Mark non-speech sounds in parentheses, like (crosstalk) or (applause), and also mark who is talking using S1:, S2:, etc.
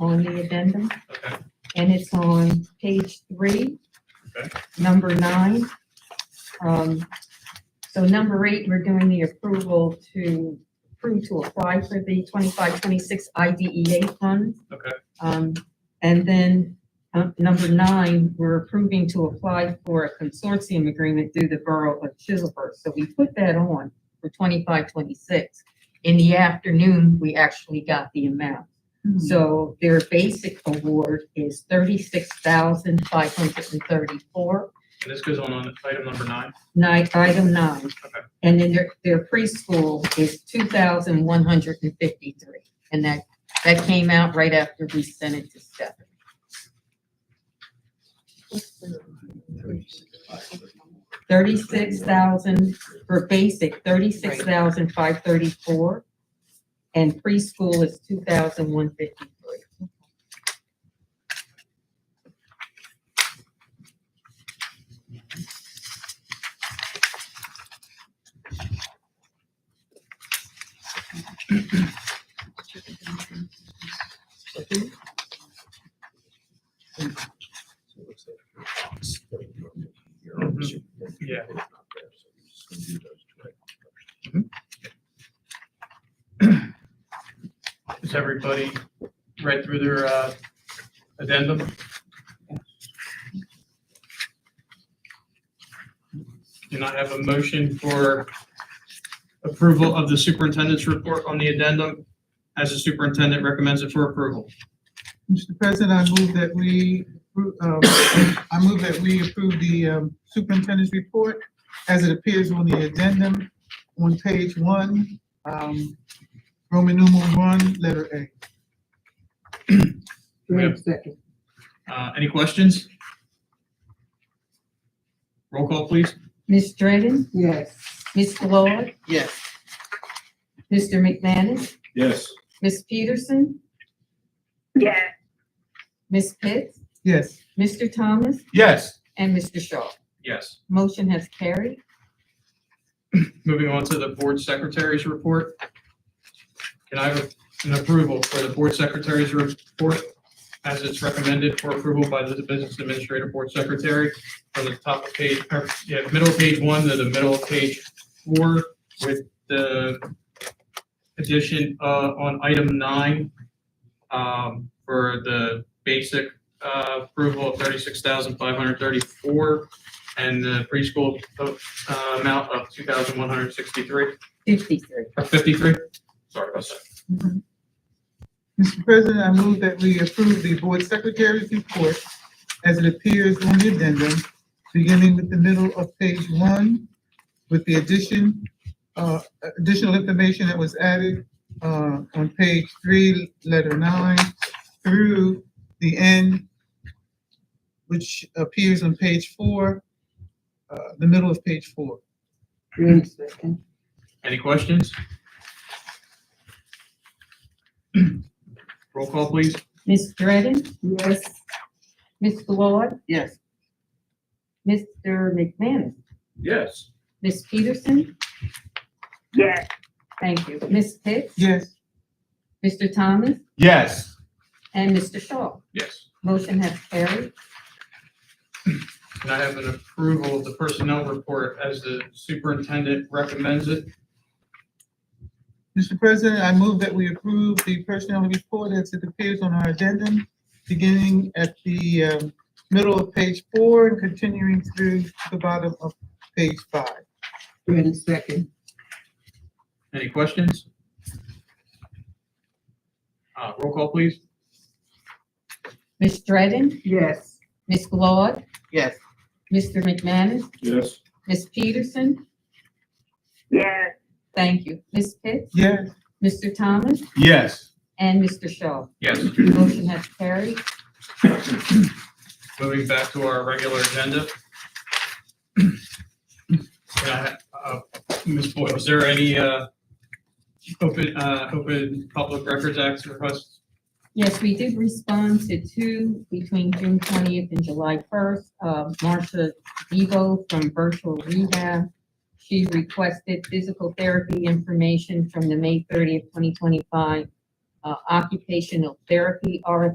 S1: on the addendum,
S2: Okay,
S1: and it's on page three,
S2: Okay.
S1: number nine. Um, so number eight, we're doing the approval to approve to apply for the twenty-five, twenty-six IDEA funds.
S2: Okay.
S1: Um, and then, uh, number nine, we're approving to apply for a consortium agreement through the Borough of Chiselburg. So we put that on for twenty-five, twenty-six. In the afternoon, we actually got the amount. So their basic award is thirty-six thousand five hundred and thirty-four,
S2: and this goes on on item number nine?
S1: nine, item nine.
S2: Okay.
S1: And then their, their preschool is two thousand one hundred and fifty-three. And that, that came out right after we sent it to Stephanie. Thirty-six thousand for basic, thirty-six thousand five thirty-four. And preschool is two thousand one fifty-three.
S2: Yeah. Has everybody read through their uh, addendum? Do not have a motion for approval of the superintendent's report on the addendum as the superintendent recommends it for approval.
S3: Mr. President, I move that we, appro- um, I move that we approve the um, superintendent's report as it appears on the addendum on page one, um, Roman numeral one, letter
S4: (clears throat)
S3: A.
S2: Do we have-
S4: second.
S2: Uh, Any questions? Roll call, please.
S1: Ms. Dredden,
S4: Yes.
S1: Ms. Lloyd,
S3: Yes.
S1: Mr. McManus,
S5: Yes.
S1: Ms. Peterson,
S6: yes.
S1: Ms. Pitts,
S3: Yes.
S1: Mr. Thomas,
S5: Yes.
S1: and Mr. Shaw.
S2: Yes.
S1: Motion has carried.
S2: Moving on to the board secretary's report. Can I have an approval for the board secretary's report as it's recommended for approval by the business administrator board secretary from the top of page, or, yeah, middle of page one to the middle of page four with the addition, uh, on item nine, um, for the basic, uh, approval of thirty-six thousand five hundred thirty-four and the preschool, uh, uh, amount of two thousand one hundred sixty-three,
S1: Fifty-three.
S2: or fifty-three? Sorry about that.
S3: Mr. President, I move that we approve the board secretary's report as it appears on the addendum, beginning with the middle of page one, with the addition, uh, additional information that was added, uh, on page three, letter nine, through the end, which appears on page four, uh, the middle of page four.
S4: Green second.
S2: Any questions? Roll call, please.
S1: Ms. Dredden,
S4: Yes.
S1: Ms. Lloyd,
S3: Yes.
S1: Mr. McManus,
S5: Yes.
S1: Ms. Peterson,
S6: Yes.
S1: thank you, Ms. Pitts,
S3: Yes.
S1: Mr. Thomas,
S5: Yes.
S1: and Mr. Shaw.
S2: Yes.
S1: Motion has carried.
S2: Can I have an approval of the personnel report as the superintendent recommends it?
S3: Mr. President, I move that we approve the personnel report as it appears on our agenda, beginning at the um, middle of page four and continuing through the bottom of page five.
S4: Green second.
S2: Any questions? Uh, roll call, please.
S1: Ms. Dredden,
S4: Yes.
S1: Ms. Lloyd,
S3: Yes.
S1: Mr. McManus,
S5: Yes.
S1: Ms. Peterson,
S6: yes.
S1: thank you, Ms. Pitts,
S3: Yes.
S1: Mr. Thomas,
S5: Yes.
S1: and Mr. Shaw.
S2: Yes.
S1: Motion has carried.
S2: Moving back to our regular agenda. Can I, uh, Ms. Boyle, is there any, uh, open, uh, open public records act requests?
S1: Yes, we did respond to two between June twentieth and July first. Uh, Marcia Devo from Virtual Rehab. She requested physical therapy information from the May thirtieth, twenty twenty-five uh, occupational therapy RFP